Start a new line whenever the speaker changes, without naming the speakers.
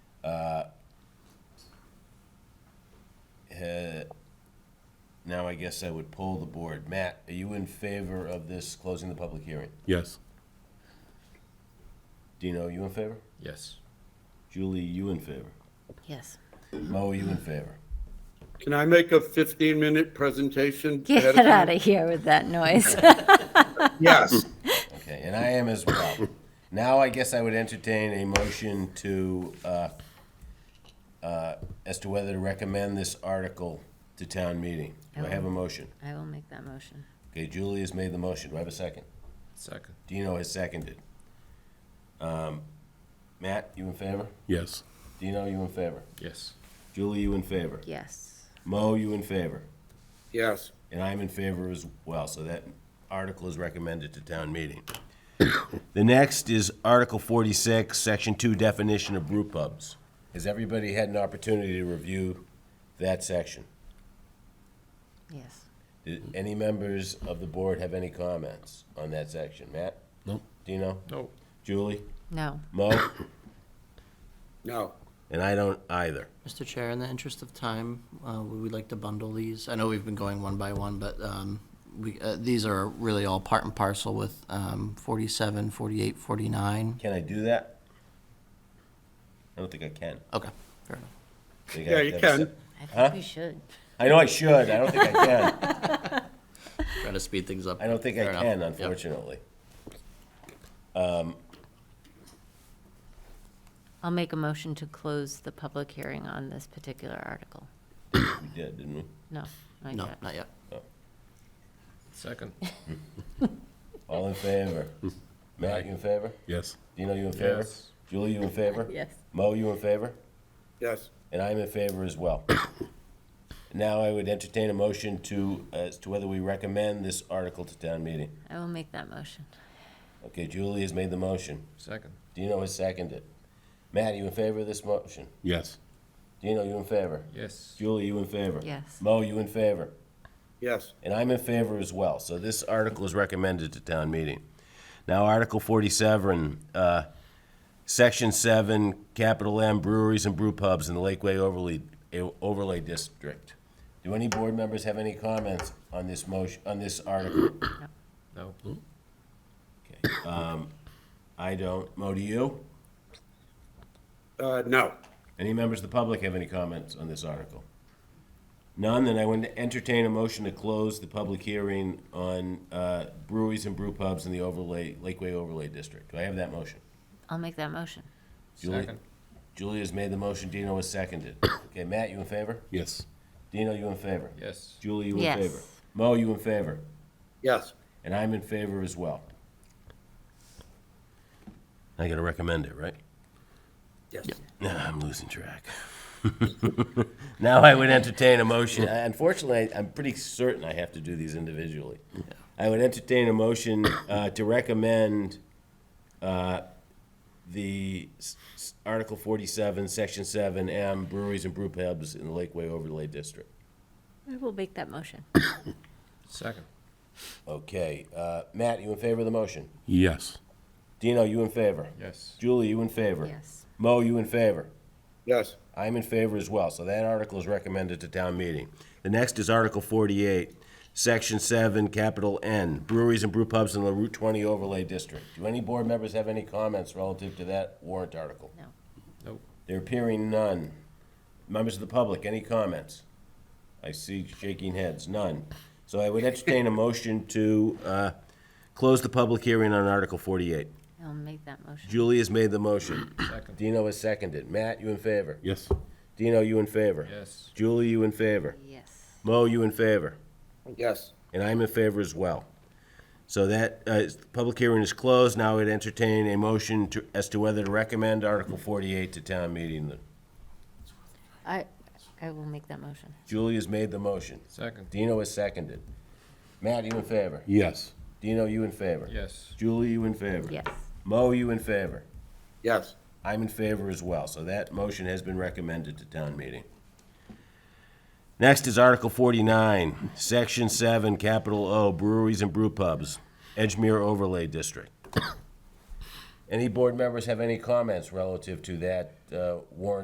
I guess I would poll the board. Matt, are you in favor of this closing the public hearing?
Yes.
Dino, you in favor?
Yes.
Julie, you in favor?
Yes.
Mo, are you in favor?
Can I make a 15-minute presentation?
Get
ahead of
out
time?
of here with that noise.
Yes.
Okay, and I am as well. Now I guess I would entertain a motion to, uh, uh, as to whether to recommend this article to town meeting. Do I have a motion?
I will make that motion.
Okay, Julie has made the motion. Do I have a second?
Second.
Dino has seconded. Um, Matt, you in favor?
Yes.
Dino, you in favor?
Yes.
Julie, you in favor?
Yes.
Mo, you in favor?
Yes.
And I'm in favor as well, so that article is recommended to town meeting. The next is Article 46, Section 2, definition of brew pubs. Has everybody had an opportunity to review that section?
Yes.
Did any members of the board have any comments on that section? Matt?
Nope.
Dino?
No.
Julie?
No.
Mo?
No.
And I don't either.
Mr. Chair, in the interest of time, uh, we would like to bundle these. I know we've been going one by one, but um, we, uh, these are really all part and parcel with um, 47, 48, 49.
Can I do that? I don't think I can.
Okay, fair enough.
I think I
Yeah,
have
you
to have a
can.
se-
I think we should.
I know I should, I don't think I can.
Trying to speed things up.
I don't think I
Fair enough.
can,
Yep.
unfortunately.
I'll make a motion to close the public hearing on this particular article.
We did, didn't we?
No, not
No,
yet.
not yet.
Second.
All in favor? Matt, you in favor?
Yes.
Dino, you in favor?
Yes.
Julie, you in favor?
Yes.
Mo, you in favor?
Yes.
And I'm in favor as well. Now I would entertain a motion to, as to whether we recommend this article to town meeting.
I will make that motion.
Okay, Julie has made the motion.
Second.
Dino has seconded. Matt, you in favor of this motion?
Yes.
Dino, you in favor?
Yes.
Julie, you in favor?
Yes.
Mo, you in favor?
Yes.
And I'm in favor as well. So this article is recommended to town meeting. Now, Article 47, uh, Section 7, capital M breweries and brew pubs in the Lakeway overlay, overlay district. Do any board members have any comments on this motion, on this article?
No.
Okay, um, I don't. Mo, do you?
Uh, No.
Any members of the public have any comments on this article? None, then I would entertain a motion to close the public hearing on uh, breweries and brew pubs in the overlay, Lakeway Overlay District. Do I have that motion?
I'll make that motion.
Julie-
Second.
Julie has made the motion, Dino has seconded. Okay, Matt, you in favor?
Yes.
Dino, you in favor?
Yes.
Julie, you in
Yes.
favor? Mo, you in favor?
Yes.
And I'm in favor as well. I gotta recommend it, right?
Yes.
Nah, I'm losing track. now I would entertain a motion. I- Unfortunately, I- I'm pretty certain I have to do these individually. I would entertain a motion uh, to recommend uh, the s- s- Article 47, Section 7M breweries and brew pubs in the Lakeway Overlay District.
I will make that motion.
Second.
Okay, uh, Matt, you in favor of the motion?
Yes.
Dino, you in favor?
Yes.
Julie, you in favor?
Yes.
Mo, you in favor?
Yes.
I'm in favor as well, so that article is recommended to town meeting. The next is Article forty-eight, Section seven, capital N, breweries and brew pubs in the Route twenty overlay district. Do any board members have any comments relative to that warrant article?
No.
No.
There appearing none. Members of the public, any comments? I see shaking heads, none. So I would entertain a motion to, uh, close the public hearing on Article forty-eight.
I'll make that motion.
Julie has made the motion.
Second.
Dino has seconded. Matt, you in favor?
Yes.
Dino, you in favor?
Yes.
Julie, you in favor?
Yes.
Mo, you in favor?
Yes.
And I'm in favor as well. So that, uh, is- public hearing is closed. Now I'd entertain a motion to, as to whether to recommend Article forty-eight to town meeting.
I, I will make that motion.
Julie has made the motion.
Second.
Dino has seconded. Matt, you in favor?
Yes.
Dino, you in favor?
Yes.
Julie, you in favor?
Yes.
Mo, you in favor?
Yes.
I'm in favor as well, so that motion has been recommended to town meeting. Next is Article forty-nine, Section seven, capital O, breweries and brew pubs, Edgemere Overlay District. Any board members have any comments relative to that, uh, warrant